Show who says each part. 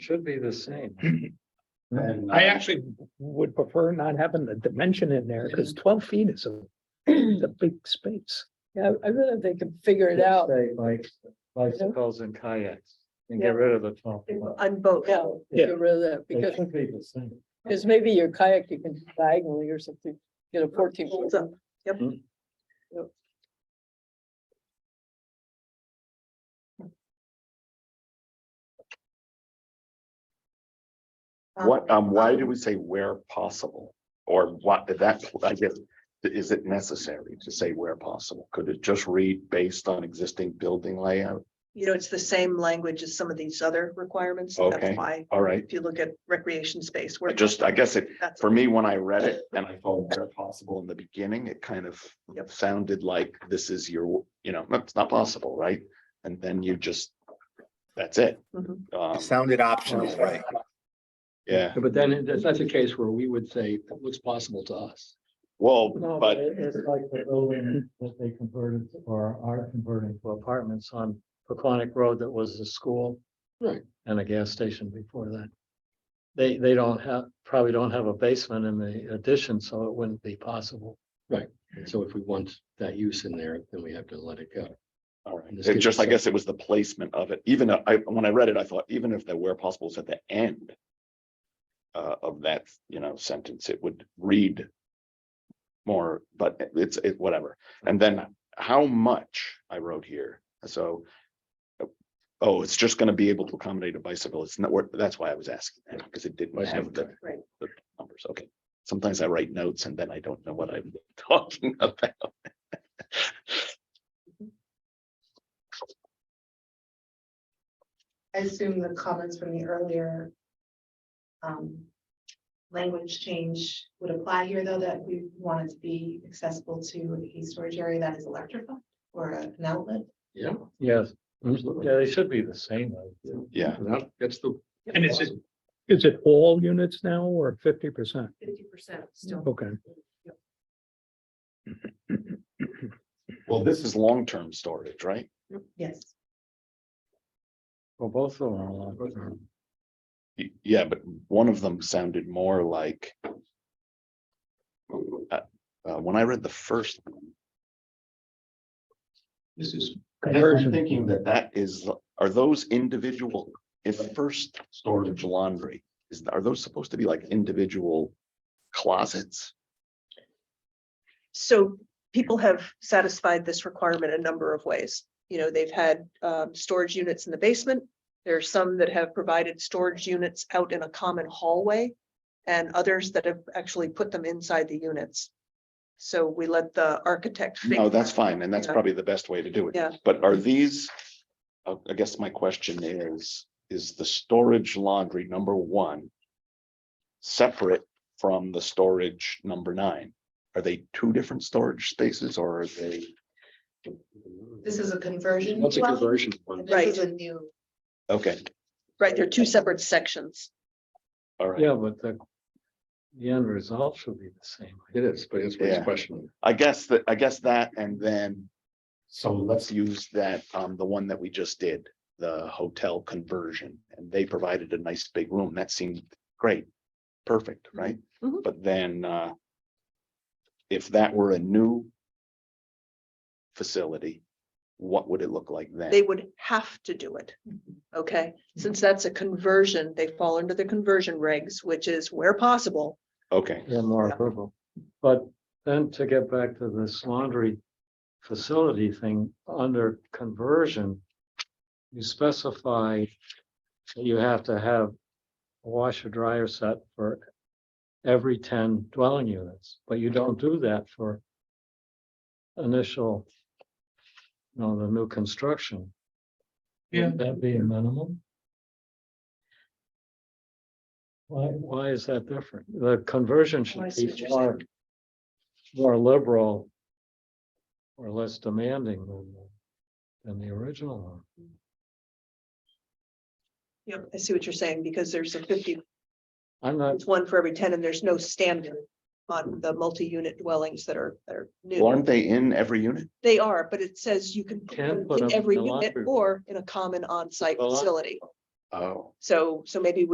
Speaker 1: Should be the same.
Speaker 2: And,
Speaker 3: I
Speaker 2: uh,
Speaker 3: actually would prefer not having the dimension in there because twelve feet is a, is a big space.
Speaker 4: Yeah, I really think they could figure it out.
Speaker 1: Say Like bicycles and kayaks and get
Speaker 4: Yeah.
Speaker 1: rid of the top.
Speaker 5: On both.
Speaker 4: Yeah,
Speaker 3: Yeah.
Speaker 4: get rid of that
Speaker 1: It
Speaker 4: because,
Speaker 1: should be the same.
Speaker 4: because maybe your kayak, you can diagonally or something, get a fourteen.
Speaker 5: Holds up. Yep.
Speaker 6: Hmm.
Speaker 1: Mm.
Speaker 4: Yep.
Speaker 6: What, um, why do we say where possible? Or what, that, I guess, is it necessary to say where possible? Could it just read based on existing building layout?
Speaker 5: You know, it's the same language as some of these other requirements. That's
Speaker 6: Okay.
Speaker 5: why,
Speaker 6: All right,
Speaker 5: if you look at recreation space,
Speaker 6: I
Speaker 5: where.
Speaker 6: just, I guess it,
Speaker 5: that's-
Speaker 6: for me, when I read it and I thought where possible in the beginning, it kind of
Speaker 5: Yep.
Speaker 6: sounded like this is your, you know, it's not possible, right? And then you just, that's it.
Speaker 1: Mm-hmm.
Speaker 5: Mhm.
Speaker 6: Um,
Speaker 7: Sounded optional, right?
Speaker 6: yeah,
Speaker 2: but then it- that's a case where we would say it looks possible to us.
Speaker 6: well,
Speaker 1: No,
Speaker 6: but
Speaker 1: but it- it's like the building that they converted or are converting to apartments on Paquonic Road that was a school.
Speaker 2: Right.
Speaker 1: And a gas station before that. They, they don't have, probably don't have a basement in the addition, so it wouldn't be possible.
Speaker 2: And so if we want that use in there, then we have to let it go.
Speaker 6: All right,
Speaker 2: And this
Speaker 6: it
Speaker 2: gives
Speaker 6: just, I
Speaker 2: us a-
Speaker 6: guess it was the placement of it, even though I, when I read it, I thought even if the where possible is at the end. Uh, of that, you know, sentence, it would read. More, but it's, it, whatever, and then how much I wrote here, so. Oh, it's just gonna be able to accommodate a bicycle, it's not, what- that's why I was asking, because it didn't have the
Speaker 5: Right.
Speaker 6: numbers, okay. Sometimes I write notes and then I don't know what I'm talking about.
Speaker 8: I assume the comments from the earlier. um, Language change would apply here, though, that we want it to be accessible to a storage area that is electrified or an outlet.
Speaker 2: Yeah,
Speaker 1: Yes,
Speaker 2: absolutely.
Speaker 1: yeah, they should be the same. I think.
Speaker 6: Yeah,
Speaker 2: That- That's the.
Speaker 3: And is it, is it all units now or fifty percent?
Speaker 8: Fifty percent still.
Speaker 3: Okay.
Speaker 6: well, this is long-term storage, right?
Speaker 8: Yes.
Speaker 1: Well, both of them are allowed.
Speaker 6: Y- Yeah, but one of them sounded more like. Uh, uh, when I read the first. one,
Speaker 3: This is
Speaker 6: I guess I'm thinking that that is, are those individual, if the first storage laundry, is, are those supposed to be like individual? Closets?
Speaker 5: So people have satisfied this requirement a number of ways. You know, they've had um storage units in the basement. There are some that have provided storage units out in a common hallway. And others that have actually put them inside the units. So we let the architect.
Speaker 6: No,
Speaker 5: figure-
Speaker 6: that's fine, and that's
Speaker 5: Yeah.
Speaker 6: probably the best way to do it.
Speaker 5: Yeah.
Speaker 6: But are these? I, I guess my question is, is the storage laundry number one? Separate from the storage number nine? Are they two different storage spaces or are they?
Speaker 8: This is a conversion.
Speaker 2: What's a
Speaker 8: dwelling,
Speaker 2: conversion? one?
Speaker 8: and This is a new,
Speaker 6: Okay,
Speaker 5: Right, they're two separate sections.
Speaker 6: all right.
Speaker 1: Yeah, but the, the end result should be the same.
Speaker 2: It is, but it's it's
Speaker 6: Yeah.
Speaker 2: questionable.
Speaker 6: I guess that, I guess that and then. So let's use that, um, the one that we just did, the hotel conversion, and they provided a nice big room. That seemed great. Perfect, right?
Speaker 5: Mhm.
Speaker 6: But then, uh. If that were a new. Facility, what would it look like
Speaker 5: they
Speaker 6: then?
Speaker 5: would have to do it. Okay, since that's a conversion, they fall under the conversion regs, which is where possible.
Speaker 6: Okay,
Speaker 1: Yeah, more
Speaker 5: Yeah.
Speaker 1: approval. But then to get back to this laundry facility thing, under conversion, you specify that you have to have a washer dryer set for every ten dwelling units, but you don't do that for initial, you know, the new construction. Wouldn't That be a minimum? Why, why is that different? The conversion
Speaker 5: Oh, I
Speaker 1: should
Speaker 5: see what
Speaker 1: be
Speaker 5: you're
Speaker 1: more, more liberal or less demanding than, the- than the original one.
Speaker 5: Yep. I see what you're saying, because there's a fifty,
Speaker 1: I'm not,
Speaker 5: it's one for every ten, and there's no standard on the multi-unit dwellings that are, that are
Speaker 6: well,
Speaker 5: new.
Speaker 6: aren't they in every unit?
Speaker 5: They are, but it says you can put
Speaker 1: Can
Speaker 5: them
Speaker 1: put them
Speaker 5: in
Speaker 1: in
Speaker 5: every
Speaker 1: the
Speaker 5: unit
Speaker 1: laundry room.
Speaker 5: or in a common on-site
Speaker 1: The laun-
Speaker 5: facility.
Speaker 6: Oh.
Speaker 5: So, so maybe we